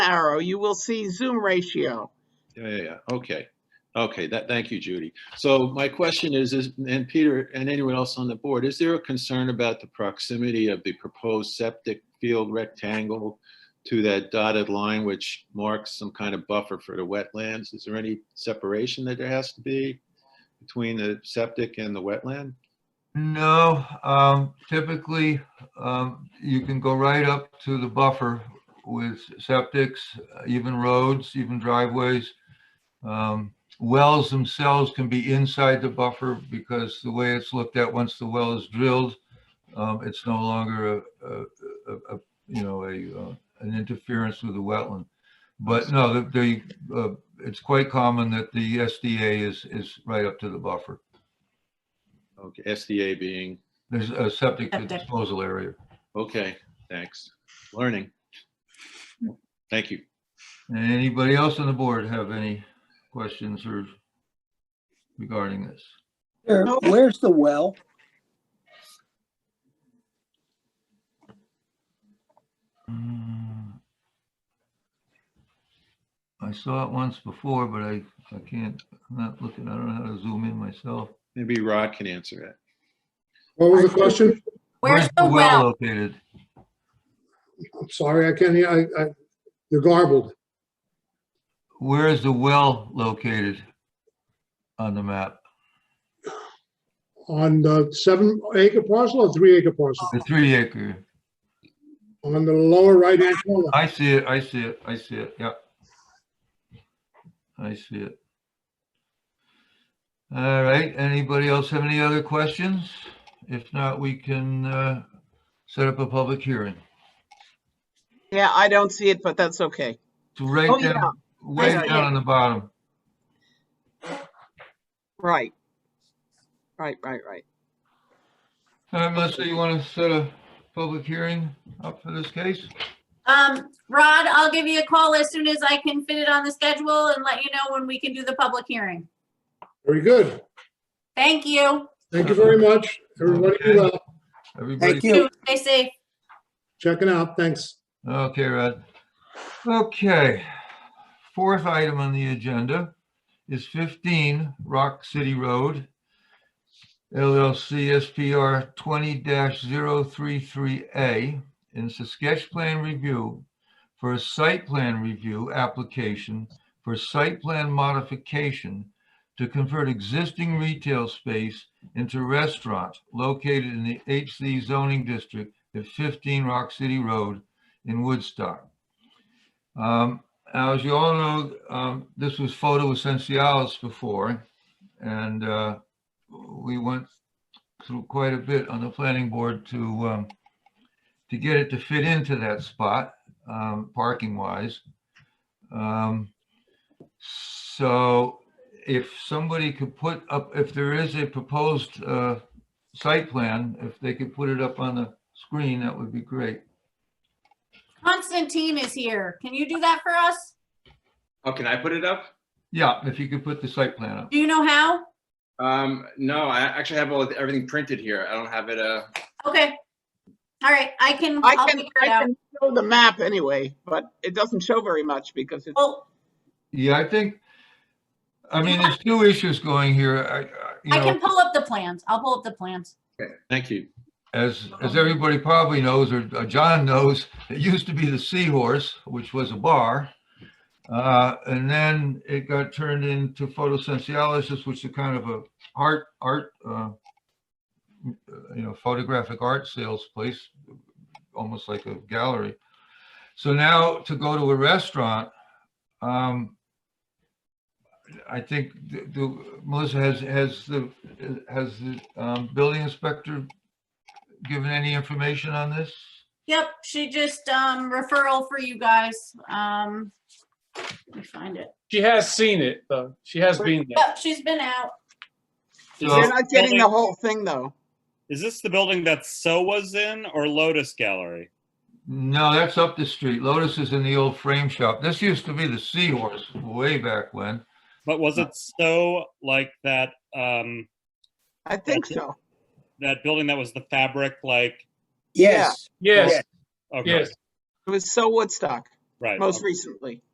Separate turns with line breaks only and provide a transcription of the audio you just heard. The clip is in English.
arrow, you will see Zoom ratio.
Yeah, yeah, yeah. Okay. Okay, that, thank you, Judy. So my question is, is, and Peter and anyone else on the board, is there a concern about the proximity of the proposed septic field rectangle to that dotted line which marks some kind of buffer for the wetlands? Is there any separation that there has to be between the septic and the wetland?
No, um, typically, um, you can go right up to the buffer with septics, even roads, even driveways. Um, Wells themselves can be inside the buffer because the way it's looked at, once the well is drilled, um, it's no longer a, a, a- a, you know, a, uh, an interference with the wetland. But no, the- the, uh, it's quite common that the SDA is, is right up to the buffer.
Okay, SDA being,
There's a uh, septic
Septic.
disposal area.
okay, thanks. Learning. Thank you.
Anybody else on the board have any questions or regarding this?
Where,
No.
where's the well?
Mm. I saw it once before, but I, I can't, I'm not looking, I don't know how to zoom in myself.
Maybe Rod can answer that.
What was the question?
Where's the well?
Located.
I'm sorry, I can't hear, I, I, you're garbled.
Where is the well located on the map?
On the seven acre parcel or three acre parcel?
The three acre.
On the lower right hand corner.
I see it, I see it, I see it, yep. I see it. All right, anybody else have any other questions? If not, we can uh, set up a public hearing.
Yeah, I don't see it, but that's okay.
So right
Oh, yeah,
down, way
know,
down
yeah.
on the bottom.
right. Right, right, right.
All right, Uh, Melissa, you want to set a public hearing up for this case?
Um, Rod, I'll give you a call as soon as I can fit it on the schedule and let you know when we can do the public hearing.
Very good.
Thank you.
Thank you very much. Everybody, be well.
Everybody
Thank you.
Stay safe.
checking out. Thanks.
Okay, Rod. Okay, fourth item on the agenda is 15 Rock City Road, LLC SPR 20-033A. And It's a sketch plan review for a site plan review application for site plan modification to convert existing retail space into restaurant located in the HC zoning district at 15 Rock City Road in Woodstock. Um, now, as you all know, um, this was Photo Essentialis before, and uh, we went through quite a bit on the planning board to um, to get it to fit into that spot, um, parking wise. Um, so if somebody could put up, if there is a proposed uh, site plan, if they could put it up on the screen, that would be great.
Constantine is here. Can you do that for us?
Oh, can I put it up?
Yeah, if you could put the site plan up.
Do you know how?
Um, no, I actually have all everything printed here. I don't have it. Uh,
Okay. All right, I can,
I
I'll
can,
figure
I
it out.
can show the map anyway, but it doesn't show very much because it's,
Well,
Yeah, I think, I mean, there's two issues going here. I,
I
I, you
can
know,
pull up the plans. I'll pull up the plans.
Thank you.
as, as everybody probably knows, or or John knows, it used to be the Seahorse, which was a bar. Uh, and then it got turned into photosensitialysis, which is kind of a art, art, uh, you know, photographic art sales place, almost like a gallery. So now to go to a restaurant, um, I think the- the, Melissa has, has the, has the, um, building inspector given any information on this?
Yep, she just, um, referral for you guys. Um, let me find it.
She has seen it, though. She has been there.
Yep, she's been out.
Oh,
you're
So,
not getting the whole thing though.
Is this the building that So was in or Lotus Gallery?
no, that's up the street. Lotus is in the old frame shop. This used to be the Seahorse way back when.
But was it So like that um
I think so.
that building that was the fabric like
Yes.
Yes,
okay.
yes.
It was so Woodstock.
Right.
most recently.